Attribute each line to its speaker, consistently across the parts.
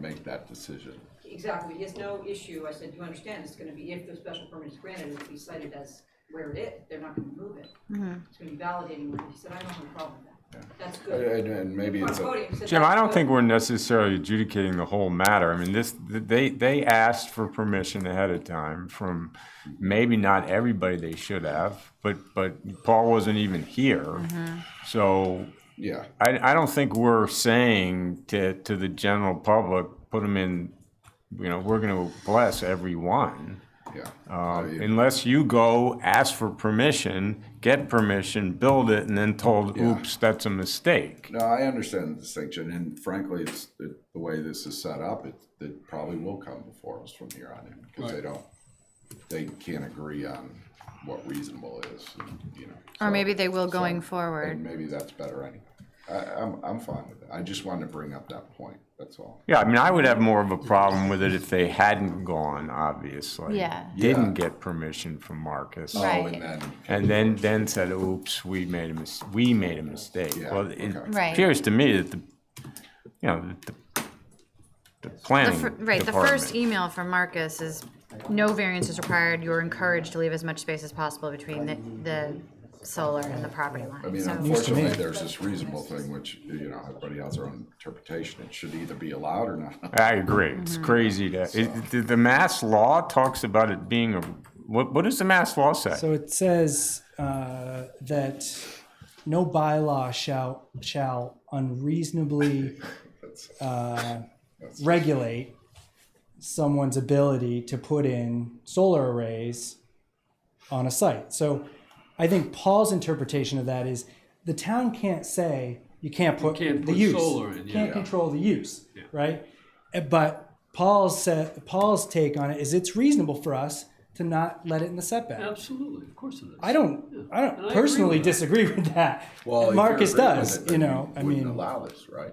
Speaker 1: make that decision.
Speaker 2: Exactly, there's no issue, I said, you understand, it's gonna be, if the special permit is granted, it'll be cited as where it is, they're not gonna move it. It's gonna be validating, where it is. he said, I don't have a problem with that, that's good.
Speaker 1: And, and maybe
Speaker 2: On
Speaker 1: it's a,
Speaker 2: podium, he said,
Speaker 3: Jim, I
Speaker 2: "That's
Speaker 3: don't
Speaker 2: good."
Speaker 3: think we're necessarily adjudicating the whole matter. I mean, this, they, they asked for permission ahead of time from maybe not everybody they should have, but, but Paul wasn't even here. So
Speaker 1: yeah,
Speaker 3: I, I don't think we're saying to, to the general public, put them in, you know, we're gonna bless everyone.
Speaker 1: yeah.
Speaker 3: Um, Unless you go ask for permission, get permission, build it, and then told, oops, that's a mistake.
Speaker 1: No, I understand the distinction, and frankly, it's, the the way this is set up, it, it probably will come before us from here on in, because they don't, they can't agree on what reasonable is, and, you know.
Speaker 4: Or
Speaker 1: so-
Speaker 4: maybe they will going
Speaker 1: And
Speaker 4: forward.
Speaker 1: maybe that's better anyway. I, I'm, I'm fine with it. I just wanted to bring up that point, that's all.
Speaker 3: Yeah, I mean, I would have more of a problem with it if they hadn't gone, obviously.
Speaker 4: Yeah.
Speaker 3: Didn't get permission from Marcus.
Speaker 4: Right.
Speaker 1: Oh, and then,
Speaker 3: And then, then said, oops, we made a mis- we made a mistake.
Speaker 1: Yeah,
Speaker 3: Well, it
Speaker 1: okay.
Speaker 4: Right.
Speaker 3: appears to me that the, you know, that the, the
Speaker 4: The
Speaker 3: planning
Speaker 4: fir- right, the first email from Marcus is, no variance is required, you're encouraged to leave as much space as possible between the, the solar and the property
Speaker 1: I
Speaker 4: line,
Speaker 1: mean,
Speaker 4: so.
Speaker 1: unfortunately, there's this reasonable thing, which, you know, everybody has their own interpretation. It should either be allowed or not.
Speaker 3: I agree. It's
Speaker 4: Mm-hmm.
Speaker 3: crazy to, it, the, the mass law talks about it being a, what, what does the mass law say?
Speaker 5: So it says uh, that no bylaw shall shall unreasonably uh, regulate someone's ability to put in solar arrays on a site. So I think Paul's interpretation of that is the town can't say you can't put
Speaker 6: can't
Speaker 5: the
Speaker 6: put
Speaker 5: use,
Speaker 6: solar in, yeah.
Speaker 5: can't control the use, right? Eh, But Paul's sa Paul's take on it is it's reasonable for us to not let it in the setback.
Speaker 6: Absolutely, of course it is.
Speaker 5: I don't, I
Speaker 6: And I
Speaker 5: don't
Speaker 6: agree
Speaker 5: personally
Speaker 6: with that.
Speaker 5: disagree with that. Marcus does, you know, I
Speaker 1: Wouldn't
Speaker 5: mean,
Speaker 1: allow this, right?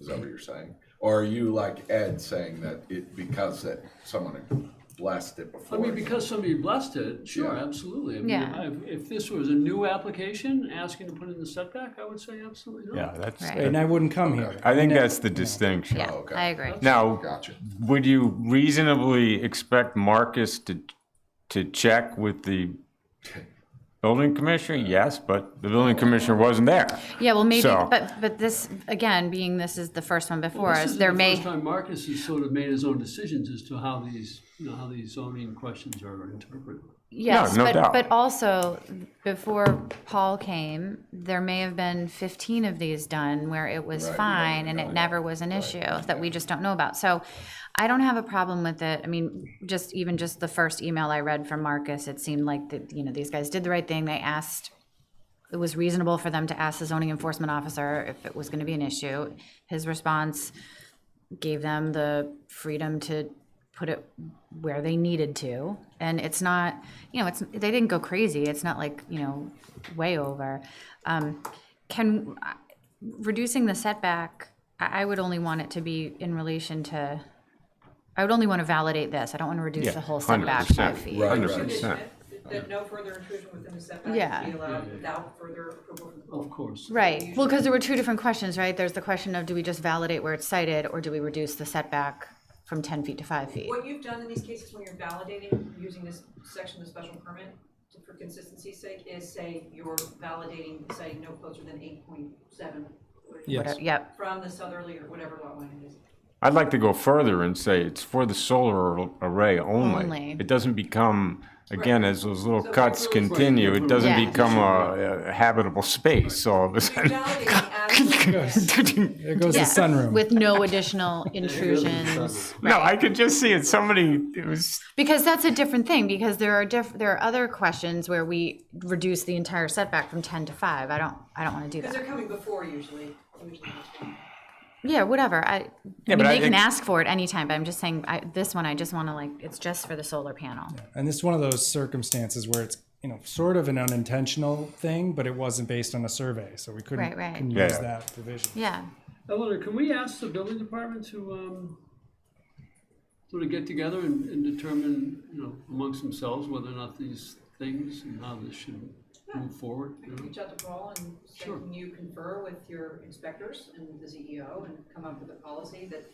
Speaker 1: Is that what you're saying? Or are you like Ed saying that it, because that someone had blessed it
Speaker 6: I
Speaker 1: before?
Speaker 6: mean, because somebody blessed it, sure,
Speaker 1: Yeah.
Speaker 6: absolutely. I mean,
Speaker 4: Yeah.
Speaker 6: I- If this was a new application, asking to put in the setback, I would say absolutely
Speaker 3: Yeah,
Speaker 6: not.
Speaker 3: that's,
Speaker 4: Right.
Speaker 5: and I wouldn't come here.
Speaker 3: I think that's the distinction.
Speaker 4: Yeah,
Speaker 1: Oh, okay.
Speaker 4: I agree.
Speaker 3: Now,
Speaker 1: Gotcha.
Speaker 3: Would you reasonably expect Marcus to, to check with the building commissioner? Yes, but the building commissioner wasn't there.
Speaker 4: Yeah, well, maybe,
Speaker 3: So-
Speaker 4: but, but this, again, being this is the first one before
Speaker 6: This
Speaker 4: us,
Speaker 6: is
Speaker 4: there
Speaker 6: the
Speaker 4: may.
Speaker 6: first time Marcus has sort of made his own decisions as to how these, you know, how these zoning questions are interpreted.
Speaker 4: Yes,
Speaker 3: no
Speaker 4: but,
Speaker 3: doubt.
Speaker 4: but also, before Paul came, there may have been fifteen of these done where it was
Speaker 1: Right.
Speaker 4: fine and it never was an issue that we just don't know about. So I don't have a problem with it. I mean, just even just the first email I read from Marcus, it seemed like that, you know, these guys did the right thing. They asked it was reasonable for them to ask the zoning enforcement officer if it was gonna be an issue. His response gave them the freedom to put it where they needed to. And it's not, you know, it's, they didn't go crazy. It's not like, you know, way over. Um, can, uh, reducing the setback, I, I would only want it to be in relation to, I would only want to validate this. I don't want to reduce the whole setback by
Speaker 3: 100%.
Speaker 4: feet.
Speaker 1: Right,
Speaker 3: Hundred
Speaker 1: right.
Speaker 3: percent.
Speaker 2: That- That no further intrusion within the setback
Speaker 4: Yeah.
Speaker 2: would be allowed without further approval from the board.
Speaker 6: Of course.
Speaker 4: Right, well, because there were two different questions, right? There's the question of do we just validate where it's cited, or do we reduce the setback from ten feet to five feet?
Speaker 2: What you've done in these cases when you're validating, using this section of the special permit, to- for consistency's sake, is say you're validating, say no closer than eight point seven
Speaker 5: Yes.
Speaker 4: Yep,
Speaker 2: from the southerly or whatever lot line it is.
Speaker 3: I'd like to go further and say it's for the solar ar- array only.
Speaker 4: Only.
Speaker 3: It doesn't become, again, as those little
Speaker 2: So
Speaker 3: cuts
Speaker 2: it's really-
Speaker 3: continue, it doesn't
Speaker 4: Yeah.
Speaker 3: become a a habitable space all of a
Speaker 2: You're
Speaker 3: sudden.
Speaker 2: validating as
Speaker 5: There goes the
Speaker 4: Yeah.
Speaker 5: sunroom.
Speaker 4: with no additional intrusions.
Speaker 3: No, I could just see it, somebody, it was,
Speaker 4: Because that's a different thing, because there are diff, there are other questions where we reduce the entire setback from ten to five. I don't, I don't want to do
Speaker 2: Because
Speaker 4: that.
Speaker 2: they're coming before usually, usually.
Speaker 4: Yeah, whatever, I, I mean,
Speaker 3: but I
Speaker 4: they can
Speaker 3: ex-
Speaker 4: ask for it anytime, but I'm just saying, I, this one, I just want to like, it's just for the solar panel.
Speaker 5: And this is one of those circumstances where it's, you know, sort of an unintentional thing, but it wasn't based on a survey, so we couldn't,
Speaker 4: Right, right.
Speaker 5: couldn't
Speaker 3: Yeah.
Speaker 5: use that provision.
Speaker 4: Yeah,
Speaker 6: Eleanor, can we ask the building department to, um, sort of get together and, and determine, you know, amongst themselves whether or not these things and how this should move forward? you know?
Speaker 2: Reach out to Paul and say,
Speaker 6: Sure.
Speaker 2: E can you confer with your inspectors and the CEO and come up with a policy that